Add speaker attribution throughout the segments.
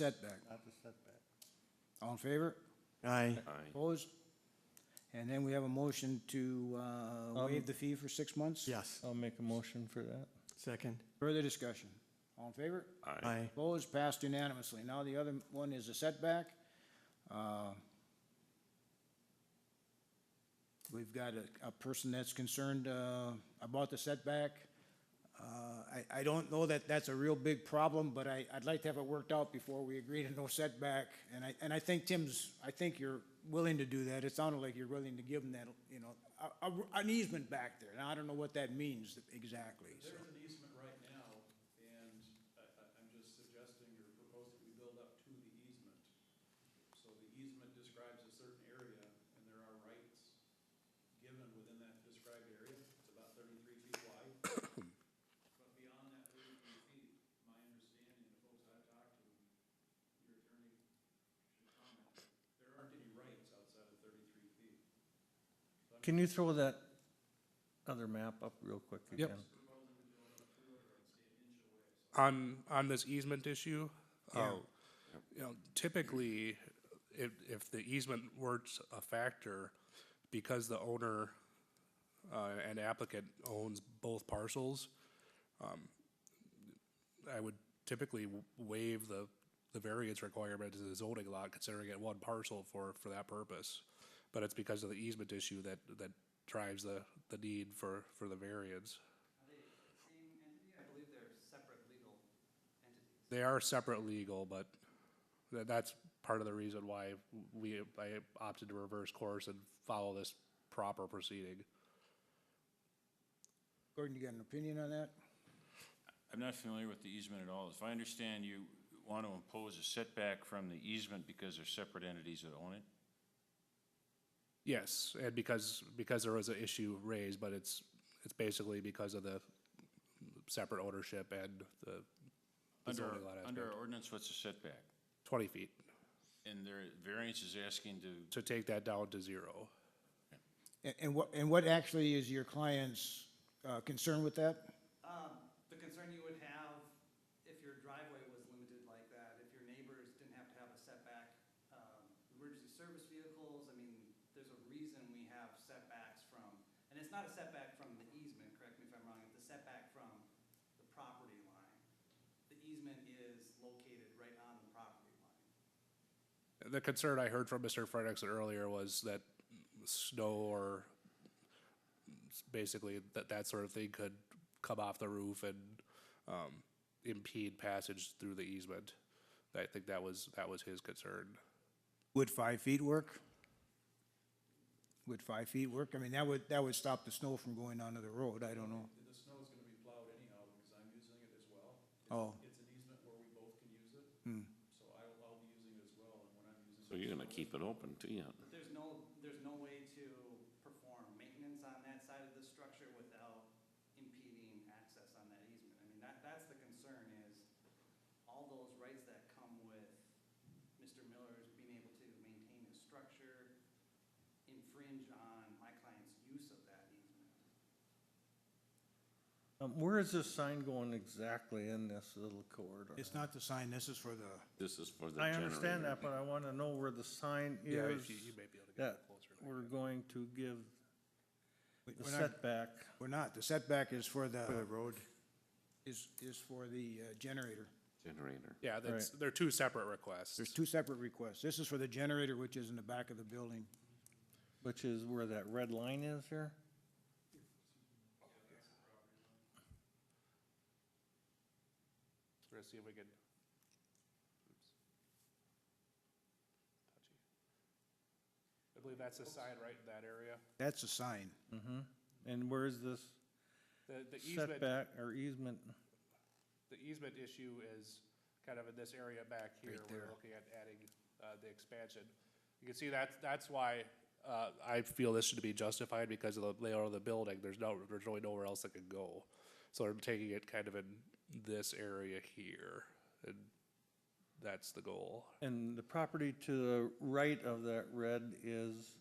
Speaker 1: setback.
Speaker 2: Not the setback.
Speaker 1: All in favor?
Speaker 2: Aye.
Speaker 1: Opposed? And then we have a motion to uh, waive the fee for six months?
Speaker 2: Yes.
Speaker 3: I'll make a motion for that.
Speaker 2: Second.
Speaker 1: Further discussion? All in favor?
Speaker 2: Aye.
Speaker 1: Opposed? Passed unanimously. Now the other one is a setback. Uh, We've got a, a person that's concerned uh, about the setback. Uh, I, I don't know that that's a real big problem, but I, I'd like to have it worked out before we agree to no setback. And I, and I think Tim's, I think you're willing to do that. It sounded like you're willing to give him that, you know, a- a- an easement back there. Now, I don't know what that means exactly, so.
Speaker 4: There's an easement right now, and I, I, I'm just suggesting or proposing we build up to the easement. So the easement describes a certain area, and there are rights given within that described area. It's about thirty-three feet wide. But beyond that thirty-three feet, my understanding, the folks I've talked to, your attorney should comment, there aren't any rights outside of thirty-three feet.
Speaker 3: Can you throw that other map up real quick again?
Speaker 5: Yep. on on this easement issue, uh, you know, typically, if if the easement were s- a factor, because the owner uh, and applicant owns both parcels, um, I would typically w- waive the the variance requirement to the zoning law, considering it one parcel for for that purpose. But it's because of the easement issue that that drives the the need for for the variance.
Speaker 6: I believe they're separate legal entities.
Speaker 5: They are separate legal, but tha- that's part of the reason why we, I opted to reverse course and follow this proper proceeding.
Speaker 1: Gordon, you got an opinion on that?
Speaker 7: I'm not familiar with the easement at all. If I understand, you want to impose a setback from the easement because they're separate entities that own it?
Speaker 5: Yes, and because, because there was an issue raised, but it's, it's basically because of the separate ownership and the- the
Speaker 7: Under,
Speaker 5: zoning lot
Speaker 7: under our
Speaker 5: aspect.
Speaker 7: ordinance, what's a setback?
Speaker 5: Twenty feet,
Speaker 7: And their variance is asking to,
Speaker 5: to take that down to zero.
Speaker 1: And, and what, and what actually is your client's, uh, concern with that?
Speaker 6: Um, the concern you would have if your driveway was limited like that, if your neighbors didn't have to have a setback, um, emergency service vehicles, I mean, there's a reason we have setbacks from, and it's not a setback from the easement, correct me if I'm wrong, it's a setback from the property line. The easement is located right on the property line.
Speaker 5: The concern I heard from Mr. Frederickson earlier was that snow or s- basically that, that sort of thing could come off the roof and, um, impede passage through the easement. I think that was, that was his concern.
Speaker 1: Would five feet work? Would five feet work? I mean, that would, that would stop the snow from going onto the road, I don't know.
Speaker 4: The snow is gonna be plowed anyhow, because I'm using it as well. It's-
Speaker 1: Oh.
Speaker 4: It's an easement where we both can use it. So I'll, I'll be using it as well, and when I'm using.
Speaker 8: So you're gonna keep it open, too, yeah?
Speaker 6: There's no, there's no way to perform maintenance on that side of the structure without impeding access on that easement. I mean, that, that's the concern is all those rights that come with Mr. Miller's being able to maintain his structure infringe on my client's use of that easement.
Speaker 3: Um, where is this sign going exactly in this little corridor?
Speaker 1: It's not the sign, this is for the,
Speaker 8: This is for the
Speaker 3: I
Speaker 8: generator.
Speaker 3: understand that, but I wanna know where the sign
Speaker 5: Yeah,
Speaker 3: is
Speaker 5: if you, you may be able to get
Speaker 3: that
Speaker 5: it closer.
Speaker 3: we're going to give
Speaker 1: we-
Speaker 3: the
Speaker 1: we're not,
Speaker 3: setback.
Speaker 1: we're not, the setback is for
Speaker 2: For the
Speaker 1: the,
Speaker 2: road.
Speaker 1: is, is for the uh, generator.
Speaker 8: Generator.
Speaker 5: Yeah, that's, they're two separate requests.
Speaker 1: There's two separate requests. This is for the generator, which is in the back of the building.
Speaker 3: Which is where that red line is here?
Speaker 5: We're gonna see if we can. I believe that's the sign right in that area.
Speaker 1: That's a sign.
Speaker 3: Mm-hmm. And where's this
Speaker 5: The, the easement,
Speaker 3: setback or easement?
Speaker 5: the easement issue is kind of in this area back here, we're looking at adding, uh, the expansion. You can see that's, that's why, uh, I feel this should be justified because of the layout of the building, there's no, there's really nowhere else that could go. So I'm taking it kind of in this area here, and that's the goal.
Speaker 3: And the property to the right of that red is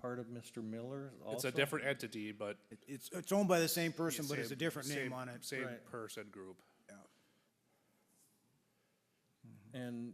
Speaker 3: part of Mr. Miller's also?
Speaker 5: It's a different entity, but.
Speaker 1: It- It's, it's owned by the same person, but it's a
Speaker 5: same-
Speaker 1: different name
Speaker 5: same-
Speaker 1: on it.
Speaker 5: Same
Speaker 3: Right.
Speaker 5: person group.
Speaker 1: Yeah.
Speaker 3: and